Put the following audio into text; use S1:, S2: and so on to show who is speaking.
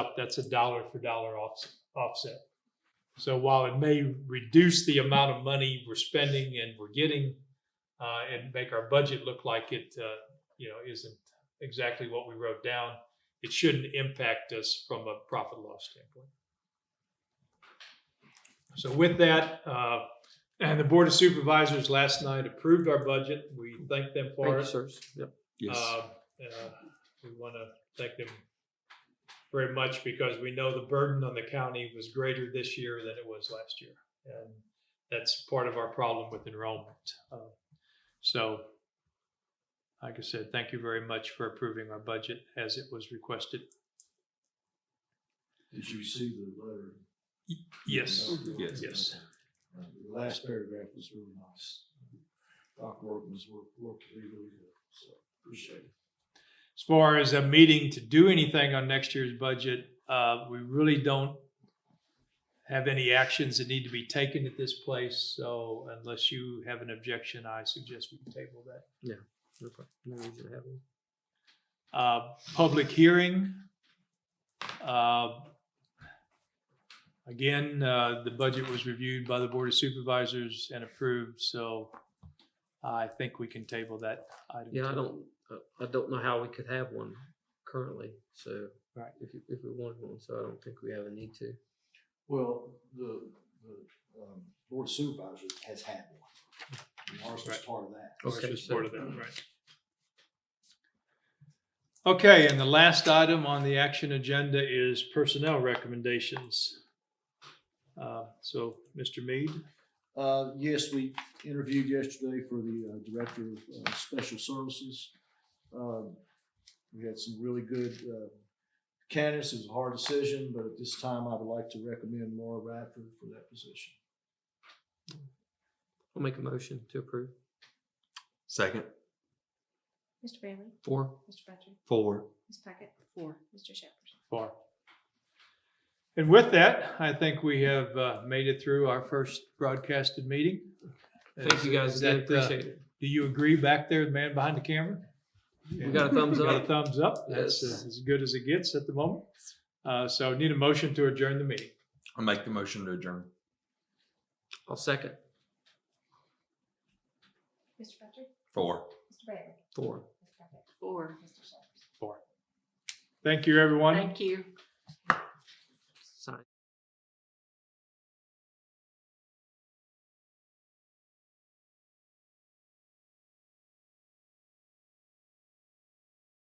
S1: up, that's a dollar for dollar offs- offset. So while it may reduce the amount of money we're spending and we're getting, uh, and make our budget look like it, uh, you know, isn't exactly what we wrote down, it shouldn't impact us from a profit and loss standpoint. So with that, uh, and the Board of Supervisors last night approved our budget. We thank them for it.
S2: sirs. Yep.
S1: Uh, uh, We want to thank them very much because we know the burden on the county was greater this year than it was last year. And that's part of our problem with enrollment. Uh, So, like I said, thank you very much for approving our budget as it was requested.
S3: Did you see the letter?
S1: Yes,
S2: Yes.
S1: yes.
S3: Uh, The last paragraph was really nice. Doc Workman's work, work really, really good, so appreciate it.
S1: As far as a meeting to do anything on next year's budget, uh, we really don't have any actions that need to be taken at this place. So unless you have an objection, I suggest we table that.
S2: No problem. No reason to have it.
S1: Uh, public hearing. Uh, Again, uh, the budget was reviewed by the Board of Supervisors and approved, so I think we can table that item.
S2: Yeah, I
S1: too.
S2: don't, I- I don't know how we could have one currently, so.
S1: Right.
S2: If, you- if we wanted one, so I don't think we have a need to.
S3: Well, the, the, um, board of supervisors has had one. And Ours was
S1: Right.
S3: part of that.
S1: Ours
S2: Okay,
S1: was
S2: so-
S1: part of that, right. Okay, and the last item on the action agenda is personnel recommendations. Uh, So, Mr. Mead,
S3: Uh, yes, we interviewed yesterday for the uh, Director of uh, Special Services. Um, We had some really good uh, candidates. It was a hard decision, but at this time, I would like to recommend Laura Radford for that position.
S2: I'll make a motion to approve.
S4: Second.
S5: Mr. Bailey?
S2: Four.
S5: Mr. Badger?
S4: Four.
S5: Ms. Puckett? Four. Mr. Shepherd?
S1: for. And with that, I think we have uh, made it through our first broadcasted meeting.
S2: Thank you guys
S1: Is
S2: again.
S1: that, uh,
S2: Appreciate it.
S1: Do you agree back there, the man behind the camera?
S2: We got a thumbs
S1: Got a
S2: up.
S1: thumbs up. That's
S2: Yes.
S1: uh, as good as it gets at the moment. Uh, So need a motion to adjourn the meeting.
S4: I'll make the motion to adjourn.
S2: I'll second.
S5: Mr. Badger?
S4: Four.
S5: Mr. Bailey?
S2: Four.
S5: Ms. Puckett? Four. Mr. Shepherd?
S1: Thank you, everyone.
S6: Thank you.